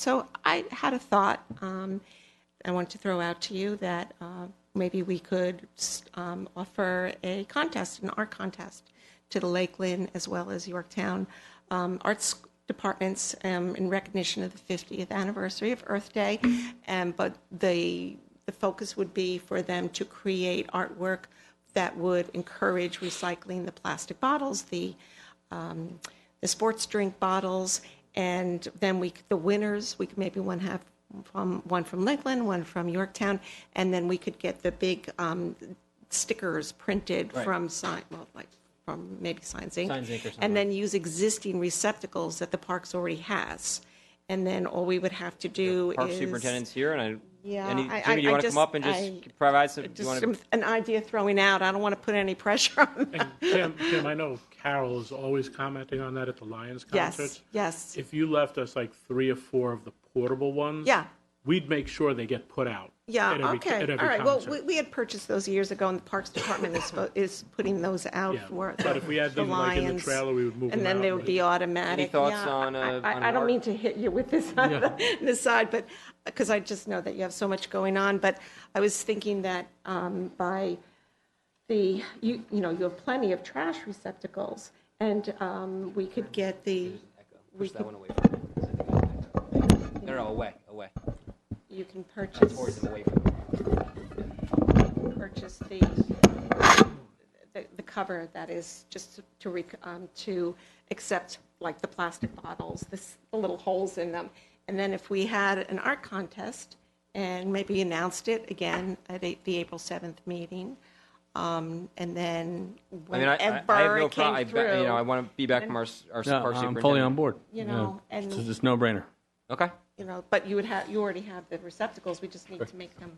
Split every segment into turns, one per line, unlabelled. So I had a thought um, I wanted to throw out to you that uh, maybe we could s- um, offer a contest, an art contest, to the Lakeland as well as Yorktown um, arts departments um, in recognition of the 50th anniversary of Earth Day. Um, but the the focus would be for them to create artwork that would encourage recycling the plastic bottles, the um, the sports drink bottles, and then we, the winners, we could maybe one have from, one from Lakeland, one from Yorktown, and then we could get the big um, stickers printed
Right.
from sign, well, like, from maybe Signs Inc.
Signs Inc. or something.
And then use existing receptacles that the parks already has. And then all we would have to do is.
Park superintendent's here, and I,
Yeah,
any,
I- I-
Jimmy, do you
I
want to
just-
come up and
I-
just provide some, do you
Just
want
some-
to?
an idea throwing out. I don't want to put any pressure on them.
And Tim, Tim, I know Carol is always commenting on that at the Lions
Yes,
concerts.
yes.
If you left us like three or four of the portable ones,
Yeah.
we'd make sure they get put out.
Yeah,
at every-
okay,
at every
all right. Well,
concert.
we, we had purchased those years ago, and the Parks Department is, fo- is putting those out
Yeah,
for
but if we had
the
them, like, in the
Lions,
trailer, we would move
And
them
then
out
they
and
would
we-
be automatic.
thoughts
Yeah,
on,
I-
uh,
I-
on
I don't
art?
mean to hit you with this on the- this side, but, because I just know that you have so much going on, but I was thinking that um, by the, you, you know, you have plenty of trash receptacles, and um, we could get the, we
Push that
could,
one away from me. 'cause I think I have an echo. No, no, away, away,
you can
towards
purchase.
them, away from me.
purchase the, the- the cover that is just to, rec- um, to accept like the plastic bottles, this, the little holes in them. And then if we had an art contest and maybe announced it again at a- the April 7th meeting, um, and then
I mean, I, I- I
whenever
have no
it
problem, I,
came
ba- you know, I
through,
want to be back from our, s- our s-
No,
park
I'm fully on
superintendent.
board.
You
Yeah.
know, and-
It's just no-brainer.
Okay,
you know, but you would have, you already have the receptacles, we just need to make them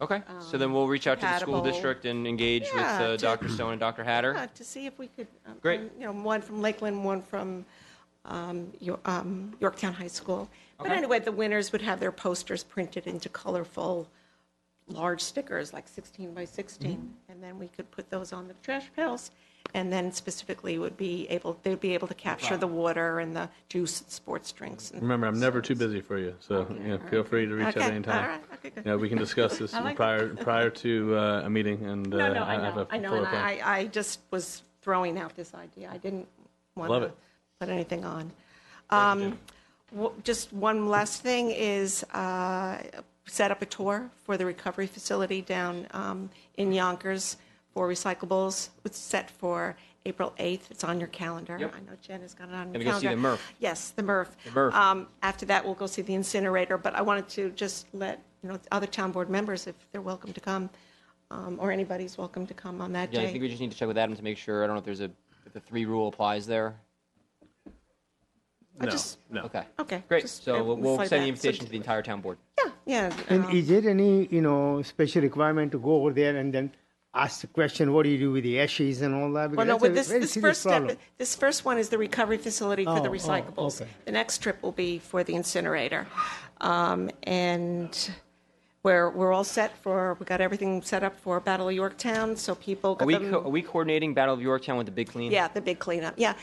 okay, so then we'll reach out to the school
compatible.
district and engage with
Um, Yeah,
uh,
to-
Dr. Stone and Dr.
Yeah,
Hatter.
to see if we could. um,
Great.
You know, one from Lakeland, one from um, Yo- um, Yorktown High School. But
Okay.
anyway, the winners would have their posters printed into colorful, large stickers, like 16 by 16.
Mm-hmm.
And then we could put those on the trash pails. And then specifically would be able, they'd be able to capture the water and the juice and sports drinks. and-
Remember, I'm never too busy for you, so you know, feel free to reach out
Okay,
anytime.
all right, okay, good.
You know, we can discuss this
I like
prior prior to uh, a meeting, and
No,
uh,
no, I
have
know,
a
I know,
fuller
and
plan.
I, I just was throwing out this idea. I didn't want
Love
to
it.
put anything on. Um, w- Just one last thing is uh, set up a tour for the recovery facility down um, in Yonkers for recyclables. It's set for April 8th. It's on your calendar. I
Yep.
know Jen has got it on
Gonna
your
go see
calendar.
the MRF.
Yes, the MRF.
The MRF.
Um, After that, we'll go see the incinerator, but I wanted to just let, you know, other town board members, if they're welcome to come, um, or anybody's welcome to come on that
Yeah,
day.
I think we just need to check with Adam to make sure, I don't know if there's a, if the three rule applies there.
I
no,
just-
no.
Okay,
Okay.
great,
just,
so
uh,
we'll- we'll
slide
send the
that. So
invitation to the entire town board.
Yeah, yeah.
And
um,
is there any, you know, special requirement to go over there and then ask the question, what do you do with the ashes and all that?
Well,
Because
no,
that's
with
a
this,
very
this
serious
first step,
problem.
this first one is the recovery facility for the
Oh, oh,
recyclables.
okay.
The next trip will be for the incinerator. Um, And we're, we're all set for, we got everything set up for Battle of Yorktown, so people
Are
got
we,
them.
co- are we coordinating Battle of Yorktown with the big
um,
clean?
Yeah, the big cleanup, yeah.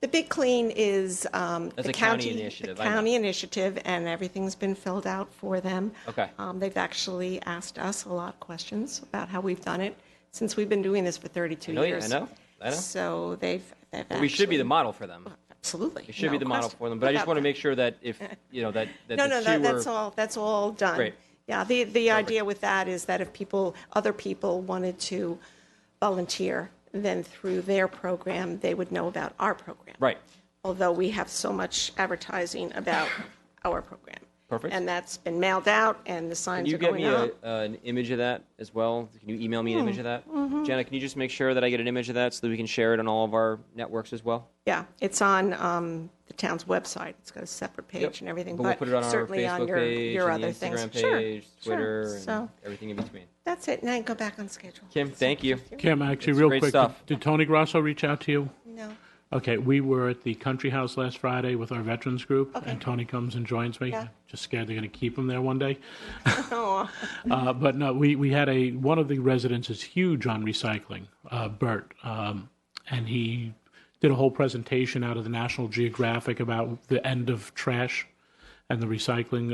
The big clean is um,
That's
the
a county
county, the
initiative, I know.
county initiative, and everything's been filled out for them.
Okay.
Um, They've actually asked us a lot of questions about how we've done it, since we've been doing this for 32
I know you- I
years.
know, I know.
So they've, they've actually.
We should be the model for them.
Absolutely.
It should be
no
the model
question
for them, but I just
about
want to
that.
make sure that if, you know, that, that
No,
the
no,
two
that-
were-
that's all, that's all done.
Great.
Yeah, the, the idea with that is that if people, other people wanted to volunteer, then through their program, they would know about our program.
Right.
Although we have so much advertising about our program.
Perfect.
And that's been mailed out, and the
Can
signs
you
are
get
going
me a,
up.
uh, an image of that as well? Can you email me an image of that?
Mm-hmm.
Jenna, can you just make sure that I get an image of that so that we can share it on all of our networks as well?
Yeah, it's on um, the town's website. It's got a separate
Yep.
page and everything,
But we'll
but
put it on our
certainly on
Facebook
your,
page,
your
and the
other things.
Instagram
Sure,
page,
sure.
Twitter, and
So
everything in between.
that's it, now go back on schedule.
Kim, thank you.
Kim, actually,
It's
real
great
quick, did,
stuff.
did Tony Grosso reach out to you?
No.
Okay, we were at the Country House last Friday with our veterans group, and Tony comes and joins me.
Yeah.
Just scared they're going to keep him there one day.
Oh,
Uh, but no, we, we had a one of the residents is huge on recycling, uh, Bert, um, and he did a whole presentation out of the National Geographic about the end of trash and the recycling